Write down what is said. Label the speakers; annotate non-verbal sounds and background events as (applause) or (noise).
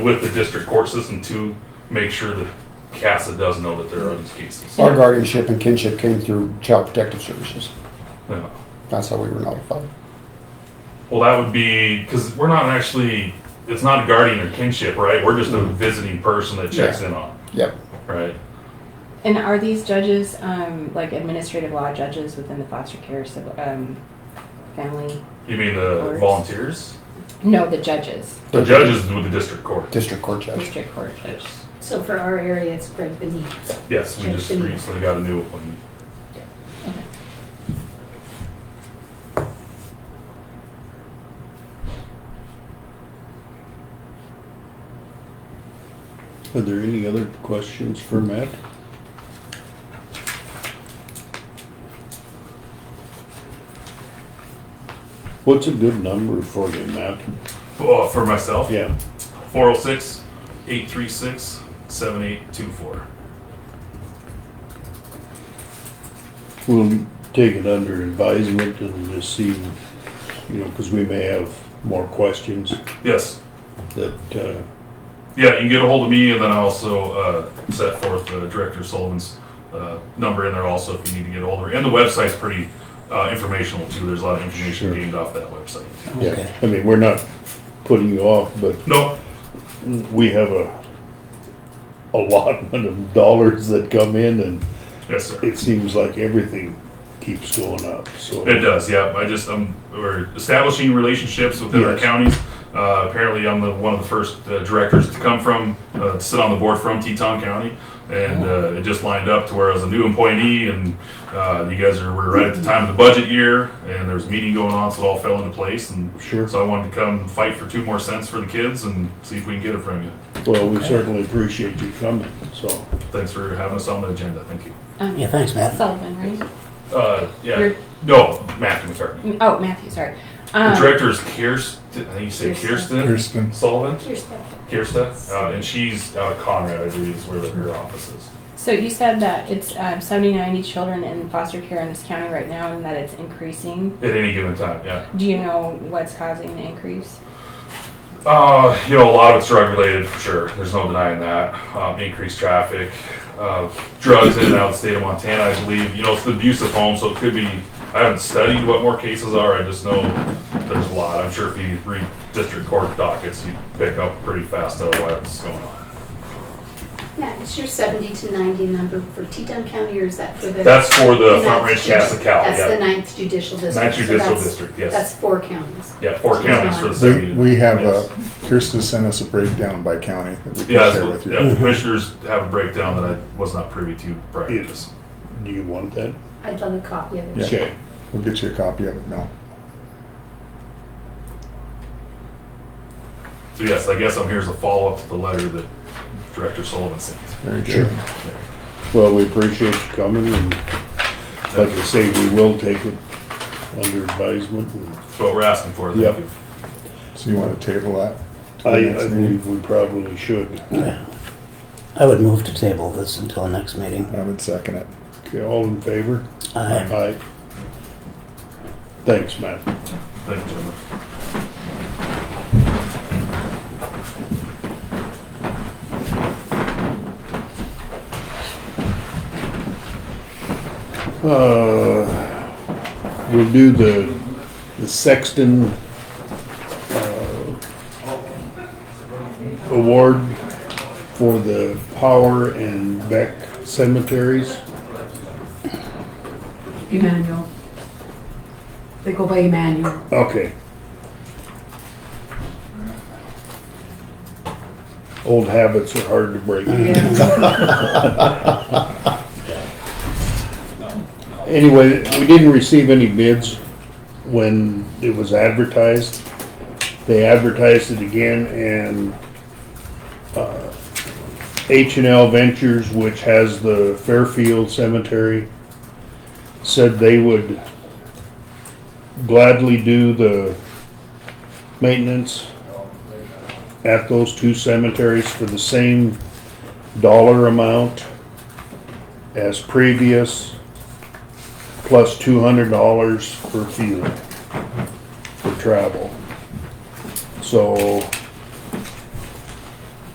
Speaker 1: with the district court system to make sure that CASA does know that there are these cases.
Speaker 2: Our guardianship and kinship came through Child Protective Services.
Speaker 1: Yeah.
Speaker 2: That's how we were notified.
Speaker 1: Well, that would be, because we're not actually, it's not a guardian or kinship, right? We're just a visiting person that checks in on,
Speaker 2: Yep.
Speaker 1: right?
Speaker 3: And are these judges, um, like administrative law judges within the foster care, civ- um, family?
Speaker 1: You mean the
Speaker 3: Courts.
Speaker 1: volunteers?
Speaker 3: No, the judges,
Speaker 1: The judges with the district court.
Speaker 2: District Court Judge.
Speaker 3: district court judges.
Speaker 4: So for our area, it's Greg Benny.
Speaker 1: Yes, we just recently got a new one.
Speaker 5: Are there any other questions for Matt? What's a good number for you, Matt?
Speaker 1: Oh, for myself?
Speaker 5: Yeah,
Speaker 1: 406 836 7824.
Speaker 5: we'll take it under advisement and just see, you know, because we may have more questions
Speaker 1: Yes.
Speaker 5: that, uh,
Speaker 1: Yeah, you can get a hold of me, and then I also uh, set forth the director Sullivan's uh, number in there also if you need to get a hold of her. And the website's pretty uh, informational too. There's a lot of information
Speaker 5: Sure.
Speaker 1: gained off that website.
Speaker 5: yeah, I mean, we're not putting you off, but
Speaker 1: No,
Speaker 5: we have a allotment (laughs) of dollars that come in and
Speaker 1: yes, sir.
Speaker 5: it seems like everything keeps going up, so.
Speaker 1: It does, yeah. I just um, we're establishing relationships within our
Speaker 5: Yes.
Speaker 1: counties. Uh, apparently, I'm the one of the first uh, directors to come from uh, to sit on the board from Teton County, and
Speaker 5: Oh.
Speaker 1: uh, it just lined up to where I was a new appointee, and uh, you guys are we're right at the time of the budget year, and there's a meeting going on, so it all fell into place, and
Speaker 5: Sure.
Speaker 1: So I wanted to come fight for two more cents for the kids and see if we can get it from you.
Speaker 5: Well, we certainly appreciate you coming, so.
Speaker 1: Thanks for having us on the agenda. Thank you.
Speaker 3: Um,
Speaker 6: Yeah, thanks, Matt.
Speaker 3: Sullivan, right?
Speaker 1: Uh, yeah.
Speaker 3: You're-
Speaker 1: no, Matthew McCartney.
Speaker 3: Mm, Oh, Matthew, sorry.
Speaker 1: The
Speaker 3: Um,
Speaker 1: director is Kirsten. I think you say
Speaker 3: Kirsten.
Speaker 1: Kirsten, Kirsten. Sullivan.
Speaker 4: Here's that.
Speaker 1: Kirsta, uh, and she's out of Conrad, I believe, is where her office is.
Speaker 3: So you said that it's um, 70, 90 children in foster care in this county right now, and that it's increasing.
Speaker 1: At any given time, yeah.
Speaker 3: Do you know what's causing the increase?
Speaker 1: Uh, you know, a lot of it's drug related for sure. There's no denying that. Um, increased traffic, uh, drugs in and out of the state of Montana, I believe. You know, it's the abuse of home, so it could be. I haven't studied what more cases are. I just know there's a lot. I'm sure if you read district court dockets, you pick up pretty fast on what's going on.
Speaker 4: Matt, is your seventy to ninety number for Teton County or is that for the?
Speaker 1: That's for the
Speaker 4: ninth
Speaker 1: Front Range
Speaker 4: judi-
Speaker 1: Casa Cal,
Speaker 4: That's the
Speaker 1: yeah.
Speaker 4: ninth judicial district.
Speaker 1: Ninth
Speaker 4: so
Speaker 1: judicial
Speaker 4: that's-
Speaker 1: district, yes.
Speaker 4: That's four counties.
Speaker 1: Yeah, four counties for the
Speaker 7: We,
Speaker 1: city.
Speaker 7: we have, uh,
Speaker 1: Yes.
Speaker 7: Kirsten sent us a breakdown by county that we
Speaker 1: Yeah,
Speaker 7: can share
Speaker 1: that's-
Speaker 7: with
Speaker 1: yeah,
Speaker 7: you. Mm-hmm.
Speaker 1: commissioners have a breakdown that I was not privy to prior to this.
Speaker 5: Do you want that?
Speaker 4: I'd love a copy of it.
Speaker 7: Yeah.
Speaker 5: Okay.
Speaker 7: We'll get you a copy of it now.
Speaker 1: So yes, I guess I'm here as a follow-up to the letter that Director Sullivan sent.
Speaker 7: Very
Speaker 5: Sure.
Speaker 7: good.
Speaker 5: Well, we appreciate you coming and like I say, we will take it under advisement. and
Speaker 1: That's what we're asking for, thank
Speaker 5: Yep.
Speaker 1: you.
Speaker 7: So you want to table that? to the
Speaker 5: I, I
Speaker 7: next meeting?
Speaker 5: believe we probably should.
Speaker 6: I would move to table this until next meeting.
Speaker 7: I would second it.
Speaker 5: Okay, all in favor?
Speaker 6: Aye.
Speaker 5: Aye. Thanks, Matt.
Speaker 1: Thank you, gentlemen.
Speaker 5: Uh, we'll do the, the Sexton, uh, award for the Power and Beck cemeteries.
Speaker 8: Emmanuel. They go by Emmanuel.
Speaker 5: Okay. Old habits are hard to break. Anyway, we didn't receive any bids when it was advertised. They advertised it again and uh, H and L Ventures, which has the Fairfield Cemetery, said they would gladly do the maintenance at those two cemeteries for the same dollar amount as previous, plus two hundred dollars for fuel, for travel. So